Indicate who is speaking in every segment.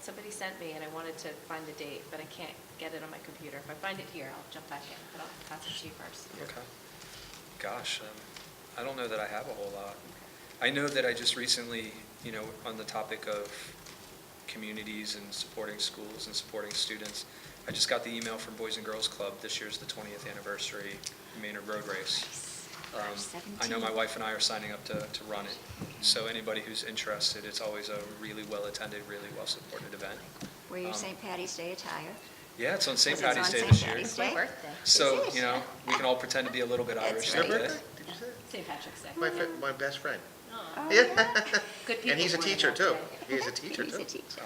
Speaker 1: somebody sent me and I wanted to find the date, but I can't get it on my computer. If I find it here, I'll jump back in, but I'll pass it to you first.
Speaker 2: Okay. Gosh, um, I don't know that I have a whole lot. I know that I just recently, you know, on the topic of communities and supporting schools and supporting students, I just got the email from Boys and Girls Club, this year's the 20th anniversary Maynard Road Race. Um, I know my wife and I are signing up to, to run it, so anybody who's interested, it's always a really well-attended, really well-supported event.
Speaker 3: Wear your
Speaker 2: Um,
Speaker 3: St. Patty's Day attire.
Speaker 2: Yeah, it's on St.
Speaker 3: Because
Speaker 2: Patty's
Speaker 3: it's
Speaker 2: Day
Speaker 3: on
Speaker 2: this
Speaker 3: St.
Speaker 2: year.
Speaker 3: Patty's
Speaker 1: It's my
Speaker 3: Day?
Speaker 1: birthday.
Speaker 2: So,
Speaker 3: It is.
Speaker 2: you know, we can all pretend to be a little bit
Speaker 3: That's
Speaker 2: Irish
Speaker 3: right.
Speaker 2: that
Speaker 4: Your
Speaker 2: day.
Speaker 4: birthday? Did you say it?
Speaker 1: St. Patrick's Day.
Speaker 4: My, fri- my best friend.
Speaker 1: Aw.
Speaker 3: Oh,
Speaker 4: Yeah.
Speaker 1: Good people.
Speaker 4: And he's a
Speaker 1: mourning
Speaker 4: teacher
Speaker 1: that
Speaker 4: too.
Speaker 1: day.
Speaker 4: He's a teacher
Speaker 3: He's
Speaker 4: too.
Speaker 3: a teacher.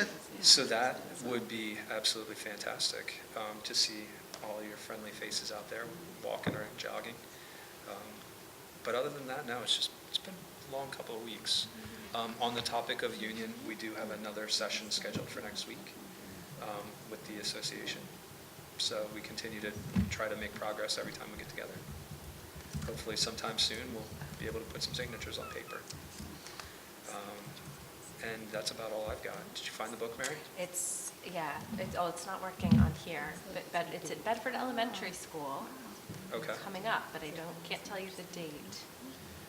Speaker 2: Um, So that would be absolutely fantastic, um, to see all your friendly faces out there walking or jogging. Um, But other than that, no, it's just, it's been a long couple of weeks. Um, On the topic of union, we do have another session scheduled for next week um, with the association. So we continue to try to make progress every time we get together. Hopefully sometime soon, we'll be able to put some signatures on paper. Um, And that's about all I've got. Did you find the book, Mary?
Speaker 1: It's, yeah, it's, oh, it's not working on here, but, but it's at Bedford Elementary School.
Speaker 2: Okay.
Speaker 1: Coming up, but I don't, can't tell you the date.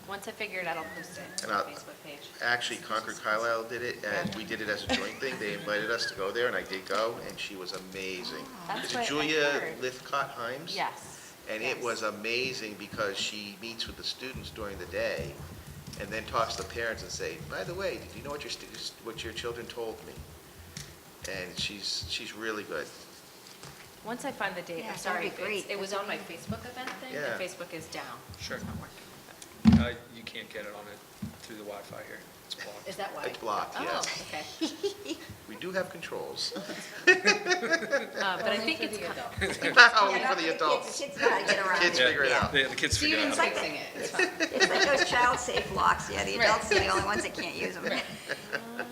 Speaker 1: Once I figure it out, I'll post it
Speaker 4: And
Speaker 1: on
Speaker 4: I'll-
Speaker 1: the Facebook page.
Speaker 4: Actually, Concord Carlisle did it, and we did it as a joint thing. They invited us to go there, and I did go, and she was amazing.
Speaker 1: Oh, That's
Speaker 4: Is
Speaker 1: what I
Speaker 4: it Julia
Speaker 1: heard.
Speaker 4: Lithcott Himes?
Speaker 1: Yes.
Speaker 4: And it
Speaker 1: yes.
Speaker 4: was amazing because she meets with the students during the day and then talks to the parents and say, by the way, did you know what your students, what your children told me? And she's, she's really good.
Speaker 1: Once I find the date,
Speaker 3: Yeah,
Speaker 1: I'm
Speaker 3: that'd
Speaker 1: sorry.
Speaker 3: be
Speaker 1: if it's-
Speaker 3: great.
Speaker 1: It was on my Facebook event thing,
Speaker 4: Yeah.
Speaker 1: and Facebook is down.
Speaker 2: Sure.
Speaker 1: It's not working.
Speaker 2: Uh, You can't get it on it through the Wi-Fi here. It's
Speaker 1: Is
Speaker 2: blocked.
Speaker 1: that why?
Speaker 4: It's blocked,
Speaker 1: Oh,
Speaker 4: yes.
Speaker 1: okay.
Speaker 4: We do have controls.
Speaker 1: Uh, But I think it's coming.
Speaker 4: Only for the adults.
Speaker 3: Kids gotta get around
Speaker 4: Kids
Speaker 3: it.
Speaker 4: figure it out.
Speaker 2: Yeah, The kids figure out. how to-
Speaker 3: It's like those child-safe locks, yeah, the
Speaker 1: Right.
Speaker 3: adults are the only ones that can't use them.
Speaker 1: Uh,